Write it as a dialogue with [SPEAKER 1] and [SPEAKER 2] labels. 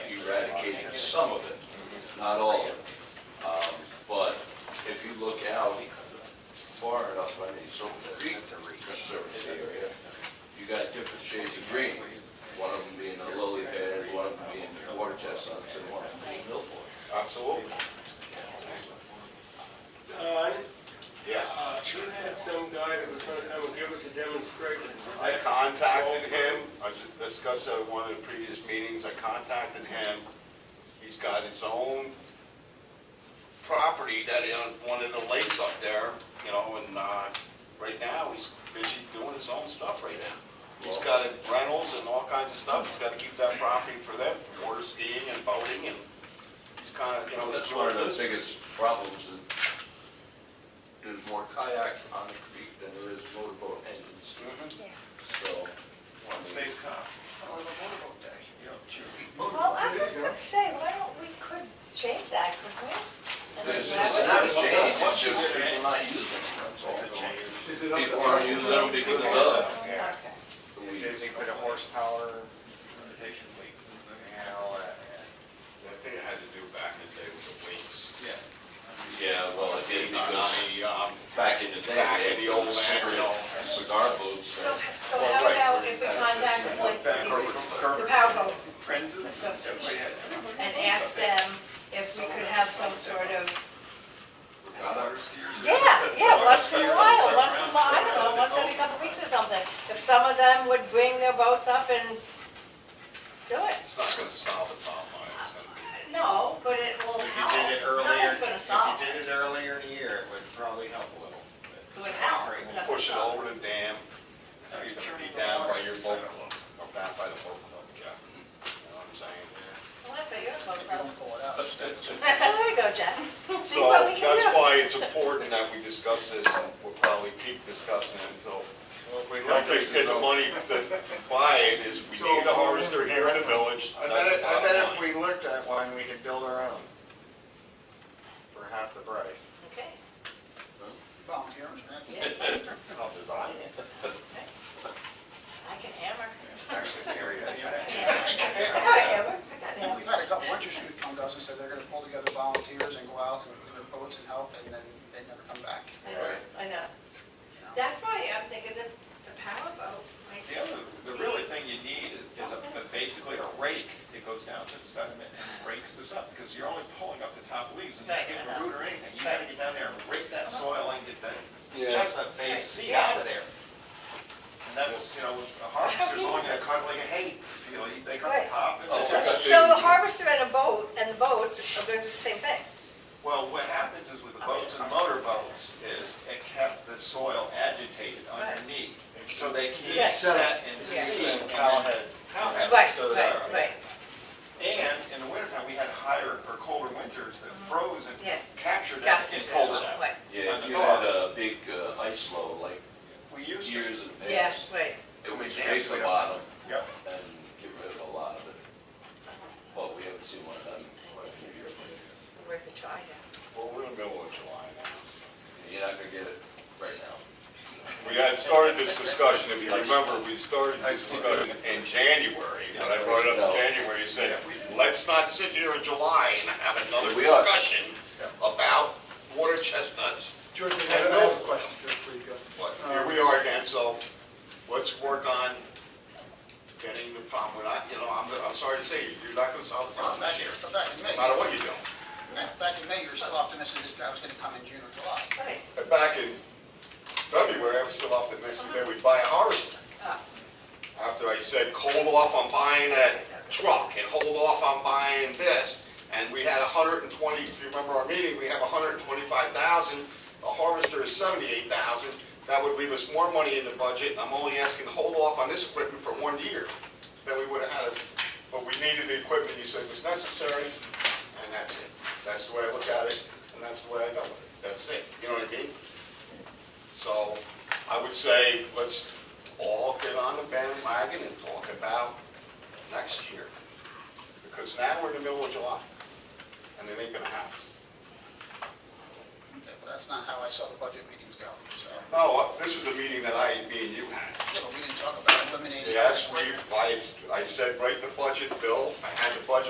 [SPEAKER 1] allocate some of it, not all of it. Um, But if you look out far enough, I mean, so conservancy area, you got different shades of green. One of them being a lily pad, one of them being water chestnuts, and one of them being milfoil.
[SPEAKER 2] Absolutely.
[SPEAKER 3] Uh,
[SPEAKER 2] Yeah.
[SPEAKER 3] uh, you had some guy that was gonna come and give us a demonstration. Was
[SPEAKER 2] I
[SPEAKER 3] that-
[SPEAKER 2] contacted him, I discussed at one of the previous meetings, I contacted him. He's got his own property that he owned, one of the lakes up there, you know, and, uh, right now, he's busy doing his own stuff right now. He's got rentals and all kinds of stuff, he's gotta keep that property for them, for water skiing and boating and he's kinda, you know,
[SPEAKER 1] That's
[SPEAKER 2] he's
[SPEAKER 1] one
[SPEAKER 2] doing
[SPEAKER 1] of the
[SPEAKER 2] his
[SPEAKER 1] biggest problems, that there's more kayaks on the creek than there is motorboat engines,
[SPEAKER 2] Mhm.
[SPEAKER 1] so. I mean,
[SPEAKER 2] Today's kind of-
[SPEAKER 4] Well, I was just gonna say, why don't, we could change that, couldn't we? And then
[SPEAKER 1] It's
[SPEAKER 4] that
[SPEAKER 1] it's
[SPEAKER 4] would-
[SPEAKER 1] not a change, it's just people not using them, that's all.
[SPEAKER 5] Is it up to
[SPEAKER 1] People aren't using them because of
[SPEAKER 5] Yeah.
[SPEAKER 4] Okay.
[SPEAKER 1] the
[SPEAKER 5] They
[SPEAKER 1] weeds.
[SPEAKER 5] they put a horsepower limitation leaks and all that.
[SPEAKER 6] I think it had to do back in the day with the weights.
[SPEAKER 5] Yeah.
[SPEAKER 1] Yeah, well, it did, because
[SPEAKER 6] Tsunami, um,
[SPEAKER 1] back in the day,
[SPEAKER 6] Back in
[SPEAKER 1] they
[SPEAKER 6] the
[SPEAKER 1] had
[SPEAKER 6] old
[SPEAKER 1] those
[SPEAKER 6] land, you know.
[SPEAKER 1] cigar boats.
[SPEAKER 4] So, so
[SPEAKER 1] Well,
[SPEAKER 4] how
[SPEAKER 1] right.
[SPEAKER 4] about if we contact like the the Powerboat
[SPEAKER 5] Friends of the
[SPEAKER 4] Association and ask them if we could have some sort of,
[SPEAKER 1] Got it?
[SPEAKER 4] yeah, yeah, once in a while, once in a while, I don't know, once every couple of weeks or something. If some of them would bring their boats up and do it.
[SPEAKER 6] It's not gonna solve the problem, I was gonna be.
[SPEAKER 4] No, but it will
[SPEAKER 5] If you did it
[SPEAKER 4] help.
[SPEAKER 5] earlier,
[SPEAKER 4] Nothing's gonna
[SPEAKER 5] if
[SPEAKER 4] solve
[SPEAKER 5] you
[SPEAKER 4] it.
[SPEAKER 5] did it earlier in the year, it would probably help a little.
[SPEAKER 4] It would help, except-
[SPEAKER 6] Push it over the dam, now you're gonna be down by your boat club, or down by the boat club, yeah. You know what I'm saying?
[SPEAKER 4] Well, that's what you're talking about.
[SPEAKER 1] That's- that's-
[SPEAKER 4] There you go, Jack. See
[SPEAKER 6] So
[SPEAKER 4] what we can do.
[SPEAKER 6] that's why it's important that we discuss this, and we'll probably keep discussing it until,
[SPEAKER 5] We
[SPEAKER 6] I think that the money to to buy it is, we need a harvester here in the village,
[SPEAKER 5] I
[SPEAKER 6] that's
[SPEAKER 5] bet,
[SPEAKER 6] the
[SPEAKER 5] it- I
[SPEAKER 6] bottom
[SPEAKER 5] bet
[SPEAKER 6] line.
[SPEAKER 5] if we looked at one, we could build our own for half the price.
[SPEAKER 4] Okay.
[SPEAKER 5] Volunteers,
[SPEAKER 4] Yeah,
[SPEAKER 5] I'll design it.
[SPEAKER 4] I can hammer.
[SPEAKER 5] Actually, Gary, I
[SPEAKER 4] I got a hammer, I got
[SPEAKER 7] And
[SPEAKER 4] nails.
[SPEAKER 7] We've had a couple interested groups come to us and said they're gonna pull together volunteers and go out and do their boats and help, and then they never come back.
[SPEAKER 4] I know, I know. That's why I'm thinking the, the power boat might be.
[SPEAKER 8] The other, the really thing you need is, is a- basically a rake that goes down to the sediment and rakes this up, because you're only pulling up the top leaves and not
[SPEAKER 4] Right, I
[SPEAKER 8] getting
[SPEAKER 4] know.
[SPEAKER 8] a root or anything. You gotta get down there and rake that soil and get that
[SPEAKER 1] Yeah.
[SPEAKER 8] chestnut
[SPEAKER 4] Right,
[SPEAKER 8] base seed
[SPEAKER 4] yeah.
[SPEAKER 8] out of there. And that's, you know, a harvester's only gonna cut like a hay field, they cut
[SPEAKER 4] Right.
[SPEAKER 8] the top. and-
[SPEAKER 1] Oh, I got you.
[SPEAKER 4] So the harvester and a boat, and the boats are gonna do the same thing.
[SPEAKER 8] Well, what happens is with the boats and motorboats is it kept the soil agitated
[SPEAKER 4] Right.
[SPEAKER 8] underneath, so they
[SPEAKER 4] Right.
[SPEAKER 8] can't set and
[SPEAKER 4] Yeah.
[SPEAKER 8] seed.
[SPEAKER 5] Cowheads.
[SPEAKER 8] Cowheads. So that- And in the wintertime, we had higher or colder winters that froze and
[SPEAKER 4] Yes.
[SPEAKER 8] captured that
[SPEAKER 4] Gotcha.
[SPEAKER 8] and pulled it out.
[SPEAKER 4] Right,
[SPEAKER 1] Yeah, if you had a big uh, ice load like
[SPEAKER 8] We used to.
[SPEAKER 1] years in the
[SPEAKER 4] yeah,
[SPEAKER 1] past,
[SPEAKER 4] right.
[SPEAKER 1] it would scrape the bottom
[SPEAKER 8] Yep.
[SPEAKER 1] and get rid of a lot of it. But we haven't seen one of them in quite a few years.
[SPEAKER 4] Worth a try now.
[SPEAKER 6] Well, we're in the middle of July now.
[SPEAKER 1] You're not gonna get it right now.
[SPEAKER 6] We had started this discussion, if you remember, we started this discussion in January, but I brought it up in January, and said, let's not sit here in July and have another
[SPEAKER 1] We are.
[SPEAKER 6] discussion about water chestnuts.
[SPEAKER 7] George, I have another question, George, before you go.
[SPEAKER 6] But here we are again, so let's work on getting the problem, we're not, you know, I'm, I'm sorry to say, you're not gonna solve the problem
[SPEAKER 7] Back
[SPEAKER 6] this
[SPEAKER 7] in,
[SPEAKER 6] year,
[SPEAKER 7] back in May,
[SPEAKER 6] no matter what you do.
[SPEAKER 7] back in May, you were still optimistic this guy was gonna come in June or July.
[SPEAKER 4] Right,
[SPEAKER 6] But Back in February, I was still optimistic that we'd buy a harvester.
[SPEAKER 4] Ah.
[SPEAKER 6] After I said, hold off on buying that truck and hold off on buying this, and we had hundred and twenty, if you remember our meeting, we have hundred and twenty-five thousand, the harvester is seventy-eight thousand, that would leave us more money in the budget, I'm only asking to hold off on this equipment for one year. Then we would have had it, but we needed the equipment you said was necessary, and that's it. That's the way I look at it, and that's the way I dealt with it. That's it, you know what I mean? So I would say, let's all get on the bandwagon and talk about next year. Because now we're in the middle of July, and it ain't gonna happen.
[SPEAKER 7] Okay, But that's not how I saw the budget meetings go, so.
[SPEAKER 6] No, uh, this was a meeting that I, me and you had.
[SPEAKER 7] Yeah, but we didn't talk about eliminating.
[SPEAKER 6] Yes, we, I, I said, write the budget, Bill, I had the budget